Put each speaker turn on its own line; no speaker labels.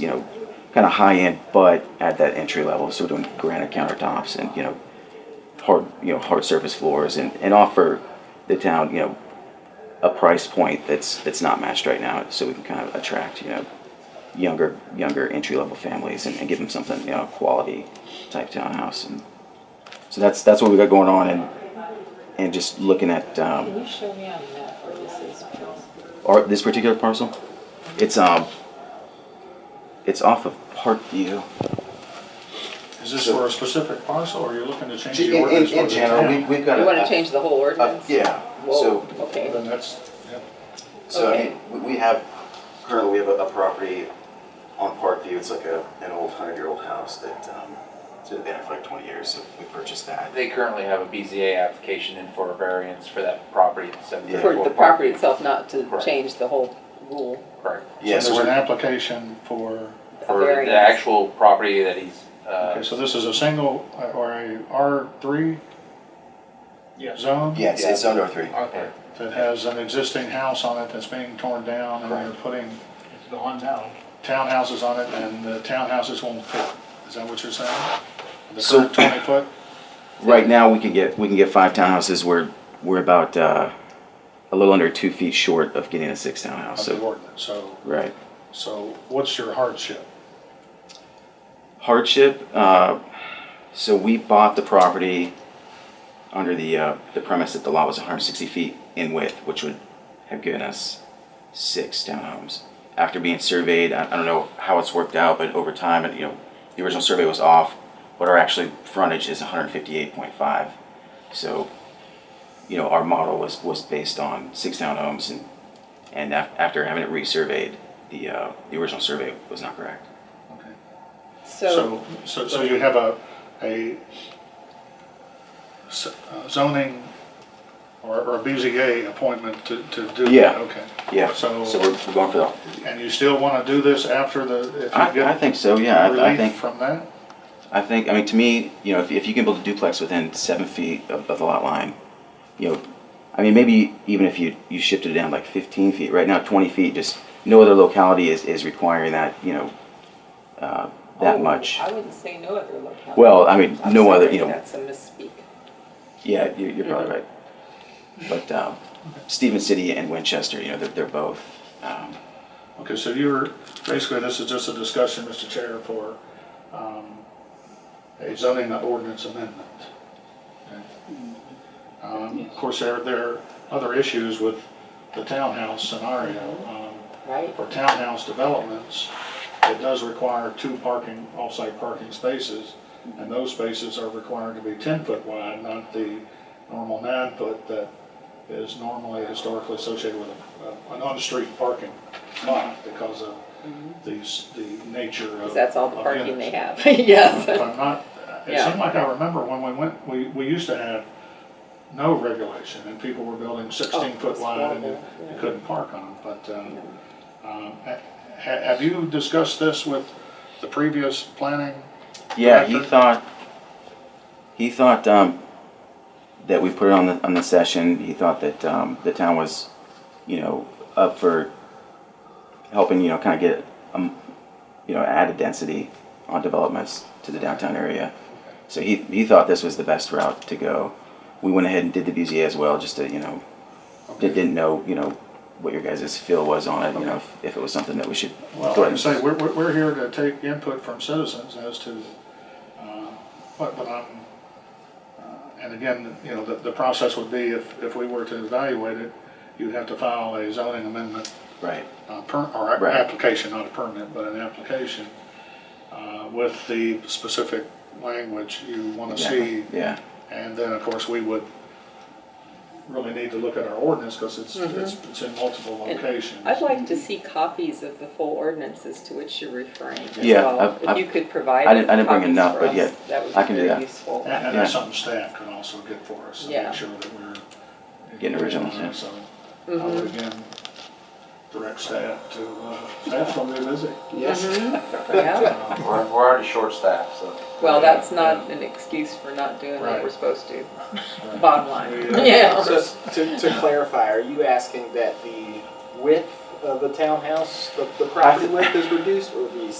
you know, kind of high end, but at that entry level. So doing granite countertops and you know, hard you know hard surface floors and, and offer the town you know a price point that's that's not matched right now, so we can kind of attract you know younger younger entry level families and, and give them something you know a quality type townhouse and so that's that's what we got going on and and just looking at
Can
um,
you show me on the map where this is, please?
our, this particular parcel. It's um it's off of Parkview.
Is this for a specific parcel, or you're looking to change
In,
the
in,
ordinance?
in general, we, we've got
You
a,
wanna
a-
change the whole
a-
Uh,
ordinance?
yeah. So
Whoa, okay.
Then that's, yeah.
So I
Okay.
mean, we- we have, currently we have a, a property on Parkview, it's like a, an old hundred-year-old house that, um, it's been there for like twenty years, so we purchased that.
They currently have a BZA application in for a variance for that property at seven
Yeah.
For
thirty-four
the
Park.
property itself, not to
Correct.
change the whole rule.
Correct.
Yeah,
So
so
there's an
we're,
application for,
A
For
variance.
the actual property that he's,
okay,
uh,
so this is a single, uh, or a R three
Yes.
zone?
yeah, it's, it's zone R three.
Okay.
That has an existing house on it that's being torn down, and they're putting
It's gone now.
townhouses on it, and the townhouses won't fit. Is that what you're saying? The
So-
current twenty foot?
Right now, we can get, we can get five townhouses, we're, we're about, uh, a little under two feet short of getting a six townhouse,
of the
so,
ordinance, so,
right.
so what's your hardship?
hardship. Uh, so we bought the property under the uh, the premise that the lot was 160 feet in width, which would have given us six townhomes. After being surveyed, I, I don't know how it's worked out, but over time, and you know, the original survey was off. What our actual frontage is 158.5. So, you know, our model was was based on six townhomes, and and af- after having it resurveyed, the uh, the original survey was not correct.
So,
So, so, so you have a, a s- uh, zoning or, or a BZA appointment to, to do? that,
Yeah.
Okay,
Yeah.
So-
So we're, we're going for the.
and you still wanna do this after the, if
I,
you
I
get
think so. Yeah. I, I
relief
think.
from that?
I think. I mean, to me, you know, if, if you can build a duplex within seven feet of, of the lot line, you know, I mean, maybe even if you you shifted it down like 15 feet. Right now, 20 feet. Just no other locality is is requiring that. You know, uh, that
Oh,
much.
I wouldn't say no other locality.
Well, I mean,
I'm
no other.
sorry,
You know.
That's a misspeak.
Yeah, you're, you're probably right. But um, Stephen City and Winchester, you know, they're, they're both. Um,
Okay, so you're, basically, this is just a discussion, Mr. Chair, for, um, a zoning ordinance amendment. Okay. Um, of course, there, there are other issues with the townhouse scenario, um,
Right?
for townhouse developments, it does require two parking, off-site parking spaces, and those spaces are required to be ten foot wide, not the normal nine foot that is normally historically associated with a- an on-street parking lot because of these, the nature of.
Mm-hmm. Because that's all the
of
parking
units.
they have, yes.
If I'm not, it
Yeah.
seemed like I remember when we went, we, we used to have no regulation, and people were building sixteen foot
it's
wide, and you
Oh, horrible,
you
yeah.
couldn't park on them, but, um, um, ha- ha- have you discussed this with the previous planning?
Yeah, he
Director?
thought, he thought, um, that we put it on the, on the session, he thought that, um, the town was, you know, up for helping, you know, kinda get, um, you know, added density on developments to the downtown area. So he, he thought this was the best route to go. We went ahead and did the BZA as well, just to, you know,
Okay.
did- didn't know, you know, what your guys' feel was on it, you know, if- if it was something that we should.
Well,
go
like I
ahead
say,
and-
we're, we're, we're here to take input from citizens as to, uh, what, what I'm, uh, and again, you know, the, the process would be if, if we were to evaluate it, you'd have to file a zoning amendment
Right,
uh, per, or a-
Right.
application, not a permit, but an application, uh, with the specific language you wanna see.
exactly, yeah,
And then, of course, we would really need to look at our ordinance, cause it's,
Mm-hmm.
it's, it's in multiple
And
locations.
I'd like to see copies of the full ordinances to which you're referring as
Yeah,
well.
I've-
If
I've-
you could provide
I didn't- I didn't bring
copies
enough,
for
but
us,
yeah,
that would
I
be
can do
very
that.
useful.
And, and that's
Yeah.
something staff can also get for us, to
Yeah.
make sure that we're.
Getting originals, yeah. Mm-hmm.
So, I would again, direct staff to, uh, staff's gonna be busy.
Mm-hmm. Yeah,
Uh,
we're, we're already short staffed, so.
well, that's not an excuse for not doing what
Right.
we're supposed to, bottom line.
Yeah.
Yeah,
So to, to clarify, are you asking that the width of the townhouse, the, the property width is reduced or the